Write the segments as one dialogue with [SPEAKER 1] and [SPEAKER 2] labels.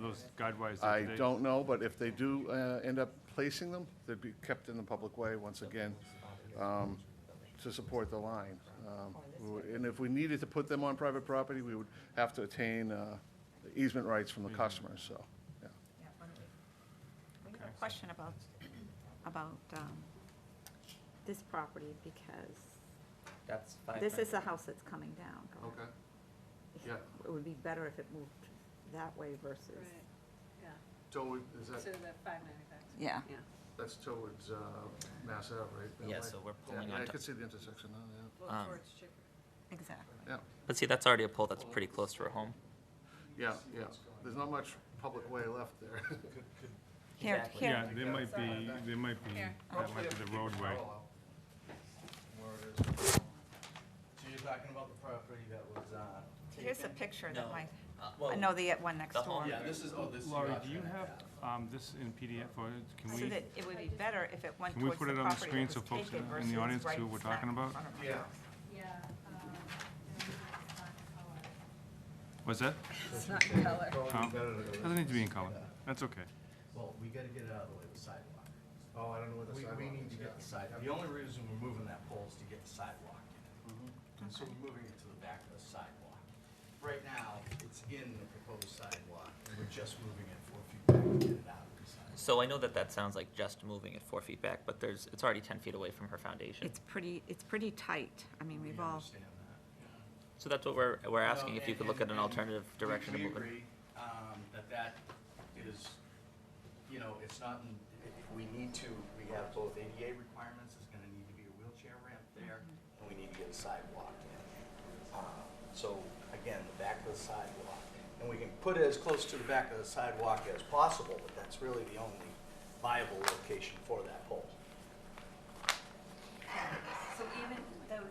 [SPEAKER 1] those guide wires? that
[SPEAKER 2] I
[SPEAKER 1] they-
[SPEAKER 2] don't know, but if they do uh, end up placing them, they'd be kept in the public way once again um, to support the line. Um, we would- And if we needed to put them on private property, we would have to attain uh, easement rights from the
[SPEAKER 3] Mm-hmm.
[SPEAKER 2] customers, so, yeah.
[SPEAKER 4] Yeah, why don't we- We have a question about, about um, this property because
[SPEAKER 3] That's five.
[SPEAKER 4] this
[SPEAKER 3] hundred.
[SPEAKER 4] is a house that's coming down. correct?
[SPEAKER 2] yeah.
[SPEAKER 4] It would be better if it moved that way versus.
[SPEAKER 5] Right, yeah,
[SPEAKER 2] So
[SPEAKER 5] so the five ninety-five,
[SPEAKER 4] Yeah.
[SPEAKER 5] yeah.
[SPEAKER 2] that's towards Mass Ave, right?
[SPEAKER 3] Yeah, so we're pulling
[SPEAKER 2] I
[SPEAKER 3] onto,
[SPEAKER 2] could see the intersection now,
[SPEAKER 5] Well,
[SPEAKER 3] Um,
[SPEAKER 5] towards Chick,
[SPEAKER 4] Exactly.
[SPEAKER 2] yeah.
[SPEAKER 3] but see, that's already a pole that's pretty close to her home.
[SPEAKER 2] Yeah, yeah, yeah. There's not much public way left there.
[SPEAKER 4] Here,
[SPEAKER 3] Exactly.
[SPEAKER 4] here,
[SPEAKER 1] Yeah, there might be, there might be,
[SPEAKER 5] Here.
[SPEAKER 1] that might be the roadway.
[SPEAKER 6] So you're talking about the property that was, uh,
[SPEAKER 4] here's a picture that
[SPEAKER 3] No.
[SPEAKER 4] might,
[SPEAKER 3] Uh,
[SPEAKER 4] I
[SPEAKER 3] well,
[SPEAKER 4] know the uh, one next
[SPEAKER 3] the
[SPEAKER 4] door.
[SPEAKER 3] home-
[SPEAKER 6] yeah, this is, oh, this is.
[SPEAKER 1] Laurie,
[SPEAKER 6] Yorkshire.
[SPEAKER 1] do you have um, this in PDF or can
[SPEAKER 4] So
[SPEAKER 1] we,
[SPEAKER 4] that it would be better if it went
[SPEAKER 1] Can we
[SPEAKER 4] towards
[SPEAKER 1] put
[SPEAKER 4] the
[SPEAKER 1] it on the
[SPEAKER 4] property
[SPEAKER 1] screen
[SPEAKER 4] that
[SPEAKER 1] so
[SPEAKER 4] was
[SPEAKER 1] folks
[SPEAKER 4] taken
[SPEAKER 1] in the
[SPEAKER 4] versus
[SPEAKER 1] audience see
[SPEAKER 4] right
[SPEAKER 1] what we're
[SPEAKER 4] smack
[SPEAKER 1] talking
[SPEAKER 4] in
[SPEAKER 1] about?
[SPEAKER 4] front of our
[SPEAKER 6] Yeah.
[SPEAKER 4] house.
[SPEAKER 5] yeah, um, it's not color.
[SPEAKER 1] was that?
[SPEAKER 5] It's not color.
[SPEAKER 1] Um, Doesn't need to be in color. That's okay.
[SPEAKER 7] Well, we gotta get it out of the way, the sidewalk.
[SPEAKER 2] Oh, I don't know where the
[SPEAKER 7] We,
[SPEAKER 2] sidewalk
[SPEAKER 7] we need to
[SPEAKER 2] is,
[SPEAKER 7] get the sidewalk. The only reason we're moving that pole is to get the sidewalk in it. And so we're moving it to the back of the sidewalk. Right now, it's in the proposed sidewalk, and we're just moving it four feet back to get it out of the sidewalk.
[SPEAKER 3] So I know that that sounds like just moving it four feet back, but there's, it's already ten feet away from her foundation.
[SPEAKER 4] It's pretty, it's pretty tight. I mean,
[SPEAKER 7] We
[SPEAKER 4] we've all,
[SPEAKER 7] understand that.
[SPEAKER 3] So that's what we're, we're asking, if you
[SPEAKER 7] No,
[SPEAKER 3] could
[SPEAKER 7] and-
[SPEAKER 3] look at an
[SPEAKER 7] and- and
[SPEAKER 3] alternative
[SPEAKER 7] we-
[SPEAKER 3] direction to move
[SPEAKER 7] We
[SPEAKER 3] it.
[SPEAKER 7] agree, um, that that is, you know, it's not, in- i- if we need to, we have both ADA requirements, it's gonna need to be a wheelchair ramp there, and we need to get a sidewalk in. Uh, So, again, the back of the sidewalk, and we can put it as close to the back of the sidewalk as possible, but that's really the only viable location for that pole.
[SPEAKER 5] So even though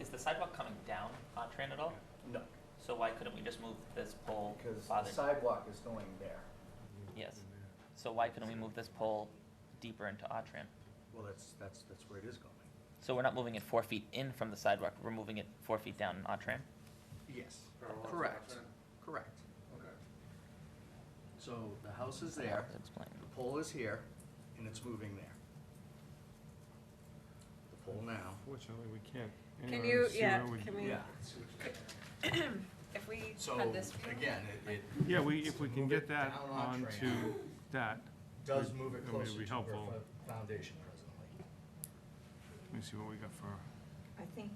[SPEAKER 3] Is the sidewalk coming down Tran at all?
[SPEAKER 7] No,
[SPEAKER 3] So why couldn't we just move this pole
[SPEAKER 7] because the
[SPEAKER 3] farther?
[SPEAKER 7] sidewalk is going there.
[SPEAKER 3] Yes. So why couldn't we move this pole deeper into Tran?
[SPEAKER 7] Well, that's, that's, that's where it is going.
[SPEAKER 3] So we're not moving it four feet in from the sidewalk, we're moving it four feet down in Autran?
[SPEAKER 7] Yes.
[SPEAKER 2] Parallel to
[SPEAKER 7] Correct,
[SPEAKER 2] the trend.
[SPEAKER 7] correct.
[SPEAKER 2] Okay.
[SPEAKER 7] So the house is there,
[SPEAKER 3] Explain.
[SPEAKER 7] the pole is here, and it's moving there. The pole now.
[SPEAKER 1] Fortunately, we can't.
[SPEAKER 5] Can
[SPEAKER 1] Anyway,
[SPEAKER 5] you,
[SPEAKER 1] see
[SPEAKER 5] yeah,
[SPEAKER 1] where we-
[SPEAKER 5] can we, if we
[SPEAKER 7] So,
[SPEAKER 5] had this.
[SPEAKER 7] again, it, it
[SPEAKER 1] Yeah, we, if we can
[SPEAKER 7] Move
[SPEAKER 1] get
[SPEAKER 7] it
[SPEAKER 1] that
[SPEAKER 7] down on
[SPEAKER 1] onto that,
[SPEAKER 7] does move it
[SPEAKER 1] It'll be
[SPEAKER 7] closer to her
[SPEAKER 1] helpful.
[SPEAKER 7] fo- foundation presently.
[SPEAKER 1] let me see what we got for,
[SPEAKER 4] I think,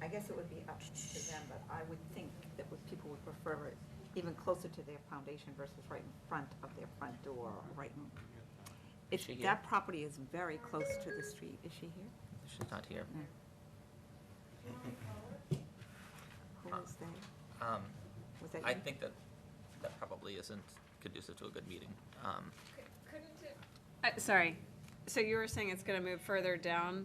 [SPEAKER 4] I guess it would be up to them, but I would think that would- people would prefer it even closer to their foundation versus right in front of their front door, or right in. If
[SPEAKER 3] Is she here?
[SPEAKER 4] that property is very close to the street, is she here?
[SPEAKER 3] She's not here.
[SPEAKER 4] Who was that?
[SPEAKER 3] Um,
[SPEAKER 4] Was that you?
[SPEAKER 3] I think that, that probably isn't conducive to a good meeting. Um,
[SPEAKER 5] Uh, sorry, so you were saying it's gonna move further down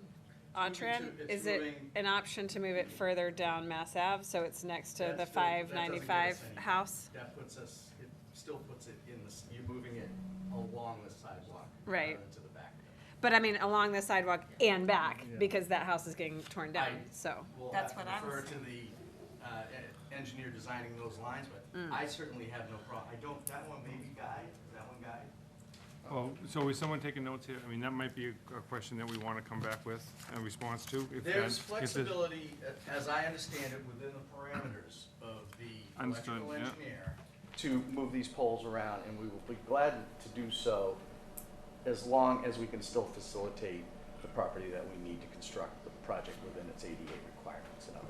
[SPEAKER 5] Autran?
[SPEAKER 6] moving to-
[SPEAKER 5] Is
[SPEAKER 6] it's
[SPEAKER 5] it
[SPEAKER 6] moving-
[SPEAKER 5] an option to move it further down Mass Ave, so it's next to
[SPEAKER 7] That's
[SPEAKER 5] the
[SPEAKER 7] the- that
[SPEAKER 5] five
[SPEAKER 7] doesn't give us
[SPEAKER 5] ninety-five
[SPEAKER 7] any-
[SPEAKER 5] house?
[SPEAKER 7] That puts us, it still puts it in the, s- you're moving it along the sidewalk.
[SPEAKER 5] Right.
[SPEAKER 7] uh, To the back.
[SPEAKER 5] But I mean, along the sidewalk and back, because that house is getting torn down,
[SPEAKER 7] I-
[SPEAKER 5] so.
[SPEAKER 7] We'll
[SPEAKER 4] That's
[SPEAKER 7] have to
[SPEAKER 4] what I was
[SPEAKER 7] refer to the uh, e- engineer designing those lines, but I certainly have no problem. I don't, that one may be Guy, is that one Guy?
[SPEAKER 1] oh, so is someone taking notes here? I mean, that might be a a question that we want to come back with a response to. if that-
[SPEAKER 7] There's
[SPEAKER 1] if it-
[SPEAKER 7] flexibility, a- as I understand it, within the parameters of the
[SPEAKER 1] Understood,
[SPEAKER 7] electrical
[SPEAKER 1] yeah.
[SPEAKER 7] engineer to move these poles around, and we will be glad to do so as long as we can still facilitate the property that we need to construct the project within its ADA requirements and others.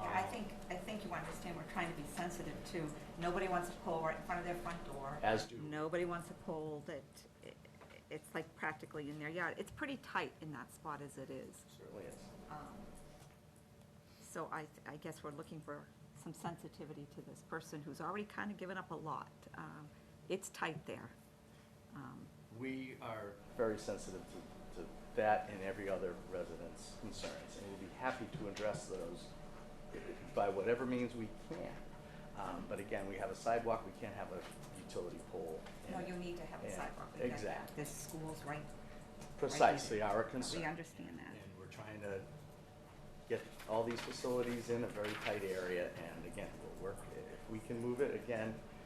[SPEAKER 4] Yeah, I think, I think you understand, we're trying to be sensitive too. Nobody wants a pole right in front of their front door.
[SPEAKER 7] As do.
[SPEAKER 4] Nobody wants a pole that, i- it's like practically in their yard. It's pretty tight in that spot as it is.
[SPEAKER 7] Certainly is.
[SPEAKER 4] Um, So I, I guess we're looking for some sensitivity to this person who's already kind of given up a lot. Um, It's tight there. Um,
[SPEAKER 7] We are very sensitive to, to that and every other resident's concerns, and we'll be happy to address those by whatever means we can. Um, but again, we have a sidewalk, we can't have a utility pole.
[SPEAKER 4] No,
[SPEAKER 7] and
[SPEAKER 4] you need to have a
[SPEAKER 7] Yeah,
[SPEAKER 4] sidewalk. we get that.
[SPEAKER 7] exactly.
[SPEAKER 4] There's schools right,
[SPEAKER 7] Precisely our
[SPEAKER 4] we
[SPEAKER 7] concern.
[SPEAKER 4] understand
[SPEAKER 7] And
[SPEAKER 4] that.
[SPEAKER 7] we're trying to get all these facilities in a very tight area, and again, we'll work, if we can move it, again,